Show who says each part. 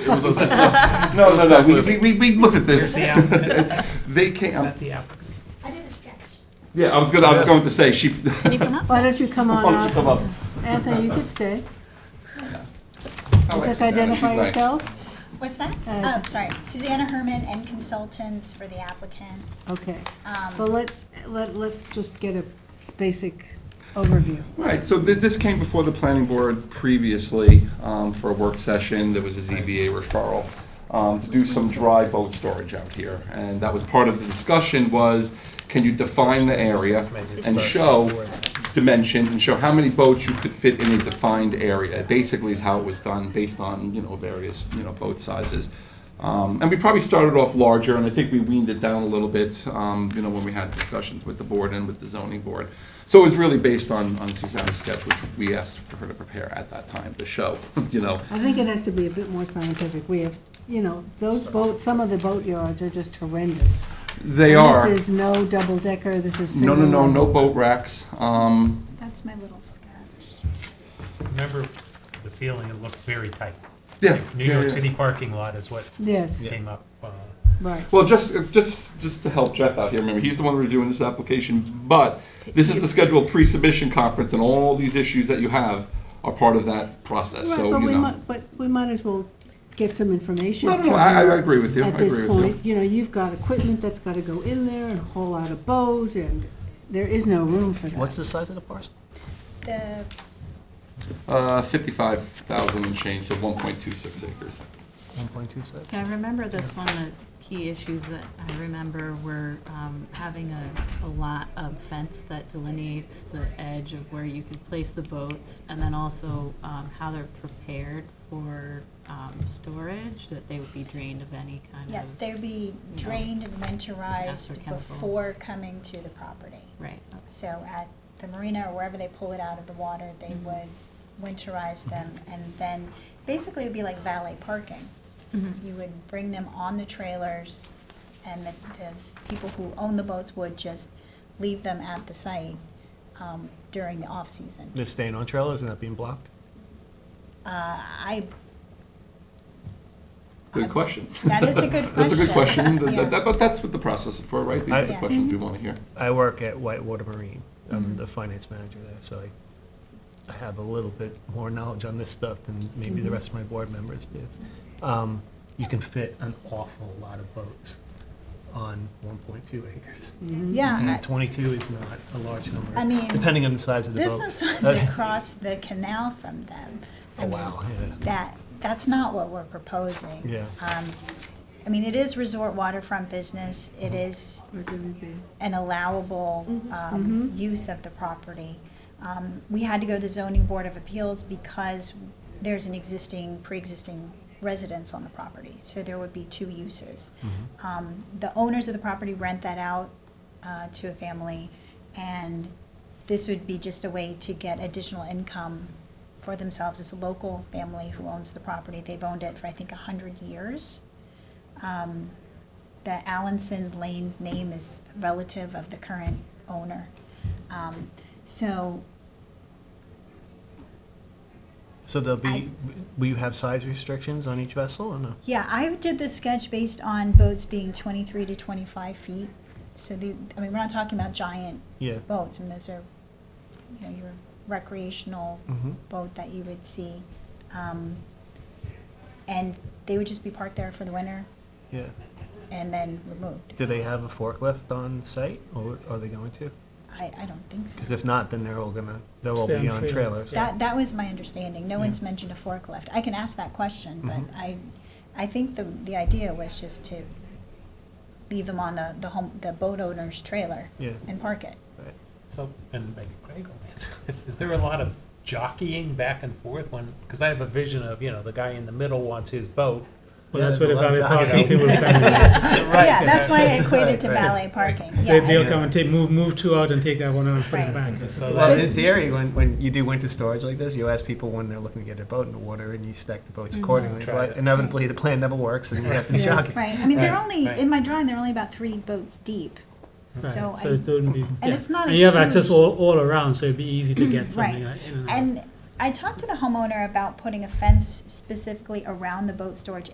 Speaker 1: It was those- No, no, no, we, we- we, we looked at this.
Speaker 2: Where's the
Speaker 1: They came,
Speaker 2: Not the applicant.
Speaker 3: I did a sketch.
Speaker 1: yeah, I was gonna, I was going to say, she.
Speaker 4: Can you come up?
Speaker 5: Why don't you come
Speaker 1: Why
Speaker 5: on
Speaker 1: don't you
Speaker 5: up?
Speaker 1: come up?
Speaker 5: Anthony, you could stay.
Speaker 1: I like
Speaker 5: Just
Speaker 1: Susanna,
Speaker 5: identify
Speaker 1: Oh, she's nice.
Speaker 5: yourself.
Speaker 3: What's that?
Speaker 5: Uh,
Speaker 3: Oh, sorry. Susanna Herman and consultants for the applicant.
Speaker 5: Okay.
Speaker 3: Um,
Speaker 5: Well, let, let, let's just get a basic overview.
Speaker 1: All right, so this, this came before the planning board previously um, for a work session. There was a ZBA referral um, to do some dry boat storage out here. And that was part of the discussion was, can you define the area and show dimensions and show how many boats you could fit in a defined area? Basically is how it was done, based on, you know, various, you know, boat sizes. Um, And we probably started off larger, and I think we weaned it down a little bit, um, you know, when we had discussions with the board and with the zoning board. So it was really based on, on Suzanne's sketch, which we asked for her to prepare at that time to show, you know.
Speaker 5: I think it has to be a bit more scientific. We have, you know, those boats, some of the boatyards are just horrendous.
Speaker 1: They
Speaker 5: And
Speaker 1: are,
Speaker 5: This is no double decker, this is
Speaker 1: no,
Speaker 5: single.
Speaker 1: no, no, no boat racks. Um,
Speaker 3: That's my little sketch.
Speaker 2: Remember the feeling, it looked very tight.
Speaker 1: Yeah.
Speaker 2: New
Speaker 1: yeah, yeah.
Speaker 2: York City parking lot is what
Speaker 5: Yes,
Speaker 2: came up. uh,
Speaker 5: right.
Speaker 1: Well, just, uh, just, just to help Jeff out here, remember, he's the one reviewing this application, but this is the scheduled pre-submission conference, and all these issues that you have are part of that process,
Speaker 5: Right,
Speaker 1: so,
Speaker 5: but
Speaker 1: you
Speaker 5: we
Speaker 1: know.
Speaker 5: might, but we might as well get some information.
Speaker 1: No, no,
Speaker 5: to
Speaker 1: no, I,
Speaker 5: her
Speaker 1: I agree with you, I
Speaker 5: At this
Speaker 1: agree with you.
Speaker 5: point, you know, you've got equipment that's gotta go in there and haul out a boat, and there is no room for that.
Speaker 6: What's the size of the parcel?
Speaker 3: The,
Speaker 1: Uh, fifty-five thousand and change, so one point two six acres.
Speaker 6: 1.27?
Speaker 4: Yeah, I remember this one, the key issues that I remember were um, having a, a lot of fence that delineates the edge of where you could place the boats, and then also um, how they're prepared for um, storage, that they would be drained of any kind of.
Speaker 3: yes, they'd be drained and
Speaker 4: Acid
Speaker 3: winterized
Speaker 4: chemical.
Speaker 3: before coming to the property.
Speaker 4: Right, that's-
Speaker 3: So at the marina or wherever they pull it out of the water, they
Speaker 6: Mm-hmm.
Speaker 3: would winterize them and then basically it'd be like valet parking.
Speaker 6: Mm-hmm.
Speaker 3: You would bring them on the trailers and the, the people who own the boats would just leave them at the site, um, during the off-season.
Speaker 6: They're staying on trailers and not being blocked?
Speaker 3: Uh, I,
Speaker 1: Good question.
Speaker 3: that is a good question.
Speaker 1: That's a good question, Th-
Speaker 3: Yeah.
Speaker 1: th- that- but that's what the process is for, right? These are the
Speaker 6: I-
Speaker 1: questions we
Speaker 5: Mm-hmm.
Speaker 1: want to hear.
Speaker 6: I work at Whitewater Marine. I'm the finance manager there, so I, I have a little bit more knowledge on this stuff than maybe the rest of my board members do. Um, You can fit an awful lot of boats on 1.2 acres.
Speaker 1: Mm-hmm.
Speaker 3: Yeah,
Speaker 6: And 22 is not a large number.
Speaker 3: I mean,
Speaker 6: Depending on the size
Speaker 3: I-
Speaker 6: of the boat.
Speaker 3: this is what's
Speaker 6: Uh,
Speaker 3: across the canal from them.
Speaker 6: Oh,
Speaker 3: I mean,
Speaker 6: wow, yeah.
Speaker 3: That, that's not what we're proposing.
Speaker 6: Yeah.
Speaker 3: Um, I mean, it is resort waterfront business, it is
Speaker 5: We're gonna be-
Speaker 3: an allowable um, use of the property. Um, We had to go to the zoning board of appeals because there's an existing, pre-existing residence on the property, so there would be two uses. Um, The owners of the property rent that out uh, to a family, and this would be just a way to get additional income for themselves. It's a local family who owns the property, they've owned it for, I think, a hundred years the Allenson Lane name is relative of the current owner. Um, So
Speaker 6: So there'll
Speaker 3: I-
Speaker 6: be, will you have size restrictions on each vessel or no?
Speaker 3: Yeah, I did this sketch based on boats being twenty-three to twenty-five feet. So the, I mean, we're not talking about giant
Speaker 6: Yeah.
Speaker 3: boats, I mean, those are, you know, your recreational
Speaker 6: Mhm.
Speaker 3: boat that you would see. Um, And they would just be parked there for the winter
Speaker 6: Yeah.
Speaker 3: and then removed.
Speaker 6: Do they have a forklift on site or are they going to?
Speaker 3: I, I don't think so.
Speaker 6: Because if not, then they're all gonna, they'll all
Speaker 2: Stay
Speaker 6: be
Speaker 2: on
Speaker 6: on trailers.
Speaker 2: trailers.
Speaker 3: That, that was my understanding. No
Speaker 6: Yeah.
Speaker 3: one's mentioned a forklift. I can ask that question, but
Speaker 7: Mm-hmm.
Speaker 6: Mhm.
Speaker 3: I, I think the, the idea was just to leave them on the, the home, the boat owner's trailer
Speaker 6: Yeah.
Speaker 3: and park it.
Speaker 6: Right.
Speaker 2: So, and maybe Craig will answer this. Is there a lot of jockeying back and forth when, because I have a vision of, you know, the guy in the middle wants his boat.
Speaker 6: Well, that's what if I'm in poverty,
Speaker 2: they would Right.
Speaker 3: Yeah, that's why I equated
Speaker 6: right,
Speaker 3: to
Speaker 6: right,
Speaker 3: valet parking.
Speaker 7: They,
Speaker 3: Yeah,
Speaker 7: they'll come and take, move, move two out and take that one out and put
Speaker 3: Right.
Speaker 7: it back.
Speaker 2: So
Speaker 6: Well,
Speaker 2: that-
Speaker 6: in theory, when, when you do winter storage like this, you ask people when they're looking to get their boat in the water and you stack the boats accordingly.
Speaker 2: Try
Speaker 6: But
Speaker 2: it.
Speaker 6: inevitably, the plan never works and you have to
Speaker 5: Yes.
Speaker 6: jockey.
Speaker 3: right. I mean, they're
Speaker 2: Right,
Speaker 3: only,
Speaker 2: right.
Speaker 3: in my drawing, they're only about three boats deep. So
Speaker 7: So
Speaker 3: I,
Speaker 7: it wouldn't be, yeah.
Speaker 3: it's not a
Speaker 7: And you have access
Speaker 3: huge-
Speaker 7: all, all around, so it'd be easy to get something
Speaker 3: Right.
Speaker 7: like in and out.
Speaker 3: and I talked to the homeowner about putting a fence specifically around the boat storage